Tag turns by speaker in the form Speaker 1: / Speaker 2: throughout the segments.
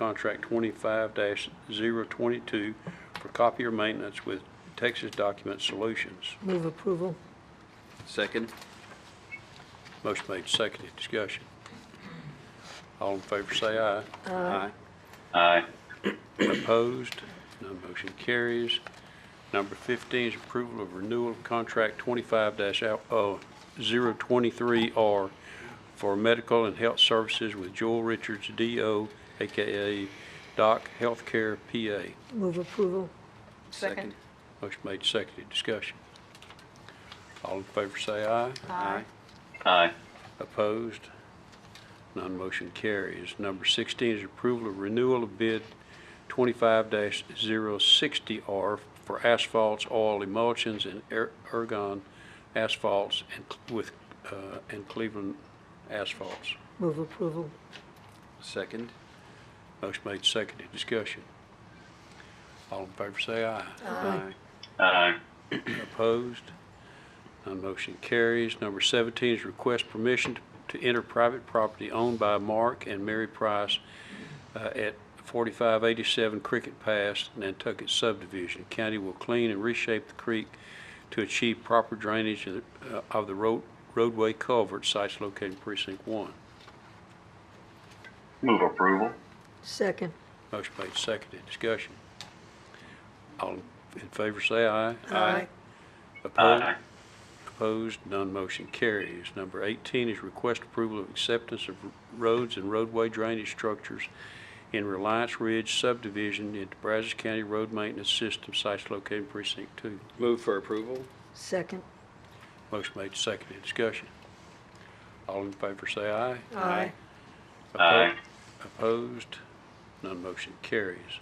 Speaker 1: contract twenty-five 22 for copier maintenance with Texas Document Solutions.
Speaker 2: Move approval.
Speaker 3: Second.
Speaker 1: Motion made, seconded, discussion. All in favor say aye.
Speaker 3: Aye.
Speaker 4: aye,
Speaker 1: Opposed? None motion carries. Number 15 is approval of renewal of contract oh, 25-023R for medical and health services with Joel Richards, DO, AKA Doc Healthcare, PA.
Speaker 2: Move approval.
Speaker 5: Second.
Speaker 1: Motion made, seconded. Discussion. All in favor say aye.
Speaker 3: Aye.
Speaker 4: aye,
Speaker 1: Opposed? None motion carries. Number 16 is approval of renewal of bid 25-060R for asphalts, oil emulsions, and er- ergon asphalts and cl- with, uh, and Cleveland asphalts.
Speaker 2: Move approval.
Speaker 3: Second.
Speaker 1: Motion made, seconded. Discussion. All in favor say aye.
Speaker 3: Aye.
Speaker 4: aye,
Speaker 1: Opposed? None motion carries. Number 17 is request permission to to enter private property owned by Mark and Mary Price uh, at 4587 Cricket Pass, Nantucket subdivision. County will clean and reshape the creek to achieve proper drainage of the- uh, of the road- roadway culvert sites located in precinct 1.
Speaker 4: move approval,
Speaker 2: Second.
Speaker 1: Motion made, seconded. Discussion. All in favor, say aye.
Speaker 2: Aye.
Speaker 1: Opposed?
Speaker 4: aye,
Speaker 1: Opposed, none motion carries. Number 18 is request approval of acceptance of roads and roadway drainage structures in Reliance Ridge subdivision into Brazos County Road Maintenance System, sites located in precinct 2.
Speaker 3: Move for approval.
Speaker 2: Second.
Speaker 1: Motion made, seconded, discussion. All in favor say aye.
Speaker 2: Aye.
Speaker 4: Aye.
Speaker 1: Opposed? None motion carries.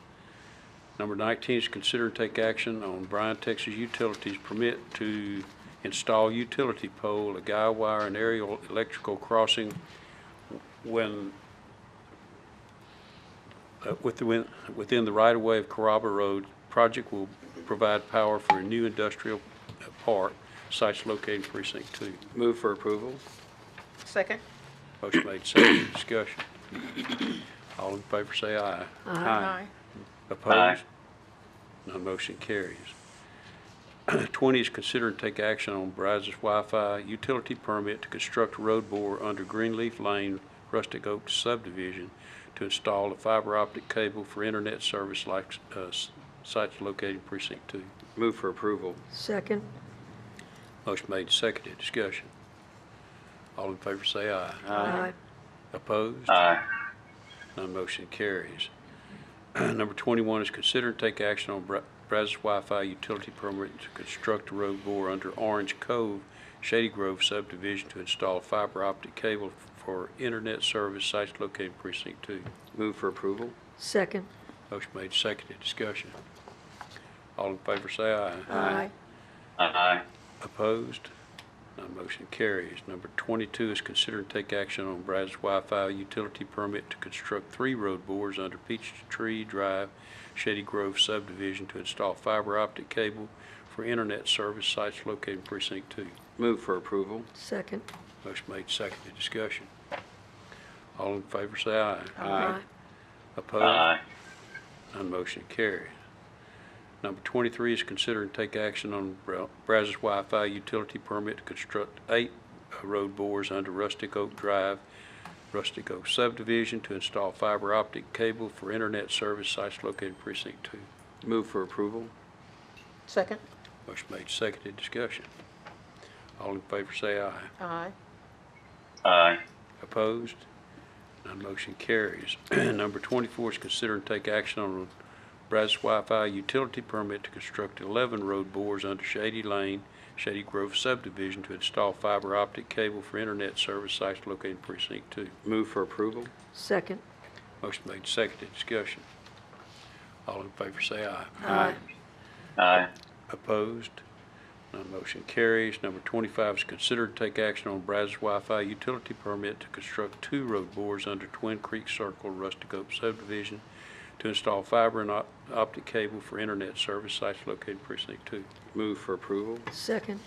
Speaker 1: Number 19 is consider and take action on Bryan, Texas Utilities permit to install utility pole, a guy wire, and aerial electrical crossing when, uh, with the win- within the right-of-way of Carrabba Road. Project will provide power for a new industrial uh, park, sites located in precinct 2.
Speaker 3: Move for approval.
Speaker 5: Second.
Speaker 1: Motion made, seconded, discussion. All in favor say aye.
Speaker 3: Aye.
Speaker 1: Opposed? None motion carries. 20 is consider and take action on Brazos Wi-Fi utility permit to construct road bore under Greenleaf Lane, Rustic Oak subdivision to install a fiber optic cable for internet service like uh, s- sites located in precinct 2.
Speaker 3: Move for approval.
Speaker 2: Second.
Speaker 1: Motion made, seconded, discussion. All in favor say aye.
Speaker 2: Aye.
Speaker 1: Opposed?
Speaker 4: aye,
Speaker 1: None motion carries. Number 21 is consider and take action on Bra- Brazos Wi-Fi utility permit to construct a road bore under Orange Cove, Shady Grove subdivision to install fiber optic cable for internet service sites located in precinct 2.
Speaker 3: Move for approval.
Speaker 2: Second.
Speaker 1: Motion made, seconded, discussion. All in favor say aye.
Speaker 2: Aye.
Speaker 4: aye,
Speaker 1: Opposed? None motion carries. Number 22 is consider and take action on Brazos Wi-Fi utility permit to construct three road bores under Peachtree Drive, Shady Grove subdivision to install fiber optic cable for internet service sites located in precinct 2.
Speaker 3: Move for approval.
Speaker 2: Second.
Speaker 1: Motion made, seconded, discussion. All in favor say aye.
Speaker 3: Aye.
Speaker 1: Opposed?
Speaker 4: aye,
Speaker 1: None motion carries. Number 23 is consider and take action on Bra- Brazos Wi-Fi utility permit to construct eight road bores under Rustic Oak Drive, Rustic Oak subdivision to install fiber optic cable for internet service sites located in precinct 2.
Speaker 3: Move for approval.
Speaker 5: Second.
Speaker 1: Motion made, seconded, discussion. All in favor say aye.
Speaker 5: Aye.
Speaker 4: aye,
Speaker 1: Opposed? None motion carries. Number 24 is consider and take action on Brazos Wi-Fi utility permit to construct 11 road bores under Shady Lane, Shady Grove subdivision to install fiber optic cable for internet service sites located in precinct 2.
Speaker 3: Move for approval.
Speaker 2: Second.
Speaker 1: Motion made, seconded, discussion. All in favor say aye.
Speaker 2: Aye.
Speaker 4: aye,
Speaker 1: Opposed? None motion carries. Number 25 is considered to take action on Brazos Wi-Fi utility permit to construct two road bores under Twin Creek Circle Rustic Oak subdivision to install fiber and op- optic cable for internet service sites located in precinct 2.
Speaker 3: Move for approval.
Speaker 2: Second.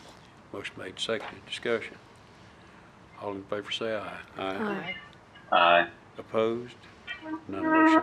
Speaker 1: Motion made, seconded. Discussion. All in favor say aye.
Speaker 3: Aye.
Speaker 2: Aye.
Speaker 4: aye.
Speaker 1: Opposed? None motion